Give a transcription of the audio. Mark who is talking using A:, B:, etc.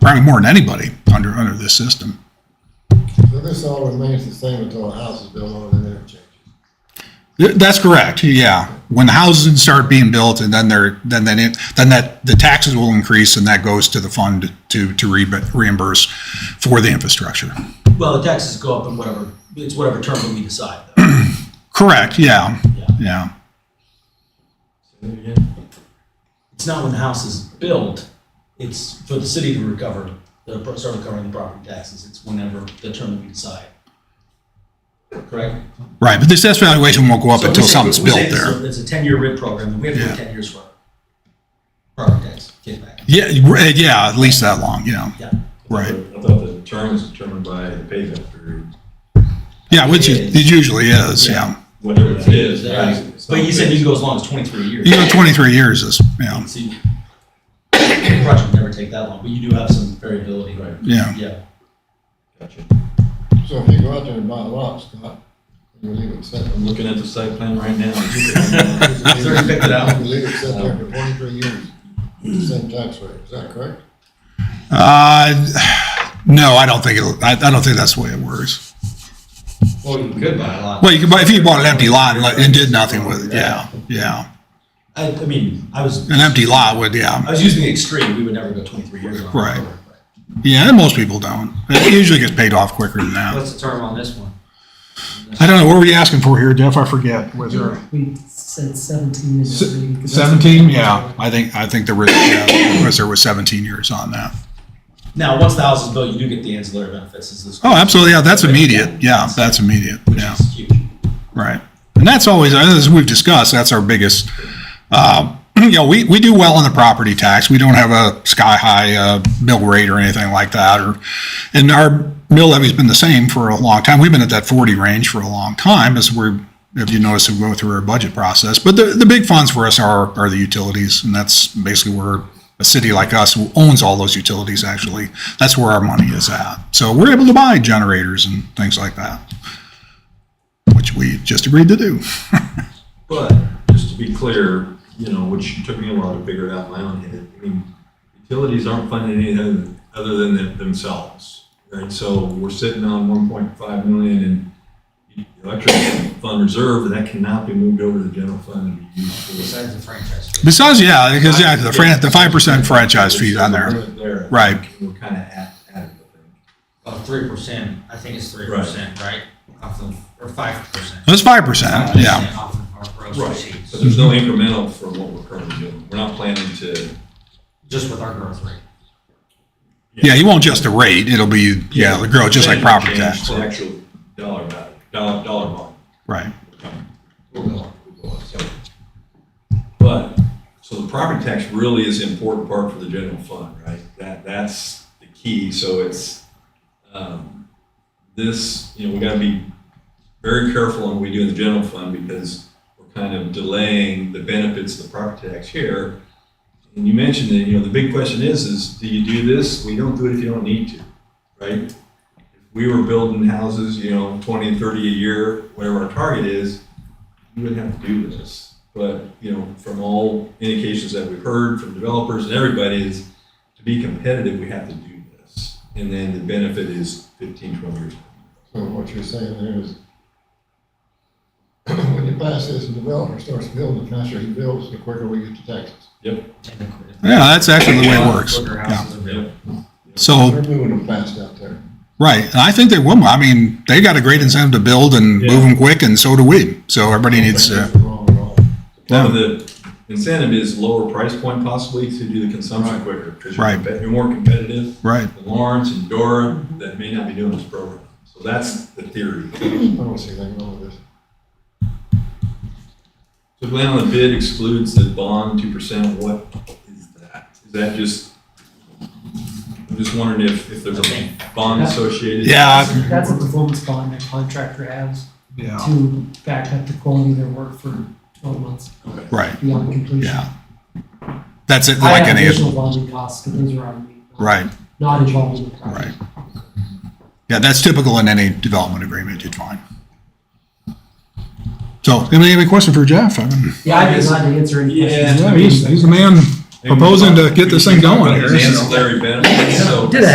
A: probably more than anybody under, under this system.
B: So this all remains the same until a house is built on and then it changes.
A: Th- That's correct, yeah. When the houses start being built and then they're, then, then it, then that, the taxes will increase and that goes to the fund to, to re- reimburse for the infrastructure.
C: Well, the taxes go up in whatever, it's whatever term that we decide. though.
A: Correct, yeah,
C: Yeah.
A: yeah.
C: It's not when the house is built, it's for the city to recover, the, start recovering the property taxes. It's whenever the term that we decide. Correct?
A: Right, but this assessment valuation won't go up
C: So we
A: until
C: say-
A: something's
C: we
A: built
C: say this is
A: there.
C: a- It's a ten-year RIP program, and we have to wait ten years for property tax kickback.
A: Yeah, right, yeah, at least that long, yeah,
C: Yeah.
A: right.
D: I thought the term was determined by the payback period,
A: Yeah, which it it usually is, yeah.
D: whatever it is.
C: Right. But you said you can go as long as twenty-three years.
A: You know, 23 years is, yeah,
C: See, the project would never take that long, but you do have some variability.
D: Right.
A: yeah.
C: Yeah,
D: Gotcha.
B: So if you go out there and buy a lot, Scott, you can leave it set.
D: I'm looking at the site plan right now.
C: already picked it out.
B: You leave it set there for twenty-three years, with the same tax rate, is that correct?
A: Uh, no, I don't think it'll, I, I don't think that's the way it works.
C: well, you could buy a lot.
A: Well, you could, buy if you bought an empty lot and, let- and did nothing with it, yeah, yeah.
C: I, I mean, I was,
A: An empty lot would,
C: I
A: yeah,
C: was using the extreme, we would never go twenty-three years on. a
A: Right.
C: program, but-
A: yeah, and most people don't. It usually gets paid off quicker than that.
C: What's the term on this one?
A: I don't know, what were you asking for here, Jeff? I forget. Was there?
E: We said seventeen and
A: Se-
E: three. 'cause that's-
A: Seventeen, yeah, I think, I think there was, yeah, was there was seventeen years on that.
C: Now, once the house is built, you do get the ancillary benefits, is this.
A: Oh, absolutely, yeah, that's immediate, yeah, that's immediate,
C: Which
A: yeah.
C: is huge.
A: Right. And that's always, as we've discussed, that's our biggest, uh, you know, we, we do well on the property tax. We don't have a sky-high uh, mill rate or anything like that. Or, And our mill levy's been the same for a long time. We've been at that 40 range for a long time as we're, if you notice, we go through our budget process. But the, the big funds for us are, are the utilities, and that's basically where a city like us who owns all those utilities actually, that's where our money is at. So we're able to buy generators and things like that which we just agreed to do.
D: But, just to be clear, you know, which took me a while to figure it out in my own head, I mean, utilities aren't funding anything other than them- themselves, right? So we're sitting on one point five million in electric fund reserve, and that cannot be moved over to the general fund and be used for.
C: Besides the franchise. fee.
A: Besides, yeah, because yeah, the fran- the five percent franchise fees on there. Right.
D: We're kind of at, at it, I think.
F: Oh, three percent, I think it's three percent, right? Off the, or five percent.
A: That's five percent, yeah.
F: Off of our gross
D: Right,
F: receipts,
D: but there's no
A: Mm-hmm.
D: incremental for what we're currently doing. We're not planning to.
F: just with our growth rate.
A: Yeah, you won't just the rate, it'll be, yeah, it'll grow just like property tax.
D: The actual dollar value, dollar, dollar amount.
A: Right,
D: or dollar, or dollar, so. But, so the property tax really is an important part for the general fund, right? That, that's the key, so it's, um, this, you know, we gotta be very careful on what we do in the general fund because we're kind of delaying the benefits of the property tax here. And you mentioned that, you know, the big question is, is do you do this? We don't do it if you don't need to, right? If we were building houses, you know, 20, 30 a year, whatever our target is, you would have to do this. But, you know, from all indications that we've heard from developers and everybody is to be competitive, we have to do this. And then the benefit is 15, 12 years.
B: So what you're saying there is, when you pass this, the developer starts building, the faster he builds, the quicker we get the taxes.
A: yeah, that's actually the way it works. Yeah. So,
B: They're moving them fast out there.
A: right, and I think they will, I mean, they got a great incentive to build and move them quick, and so do we. So everybody needs to,
B: That's wrong at all.
D: Part of the incentive is lower price point possibly to do the consumption quicker. Because you're
A: Right.
D: compe- you're more competitive
A: right,
D: than Lawrence and Dora that may not be doing this program. So that's the theory.
B: I don't see anything wrong with this.
D: So Glenn, on the bid excludes the bond two percent, what is that? Is that just, I'm just wondering if, if there's a bond associated?
A: yeah,
E: That's a performance bond that contractor
A: Uh,
E: has
A: yeah,
E: to back up the quality of their work for twelve months
D: Okay.
A: right,
E: beyond completion.
A: yeah. That's it,
E: I
A: like
E: have
A: any, of-
E: additional bonding costs, because those are on me. not-
A: right,
E: Not involved in the project.
A: right. Yeah, that's typical in any development agreement you'd find. So, anybody have a question for Jeff? I mean-
E: Yeah, I did not answer any questions.
D: Yeah,
A: Yeah, he's, he's the man proposing to get this thing going here. so.
D: Ancillary benefits, so.
F: Did it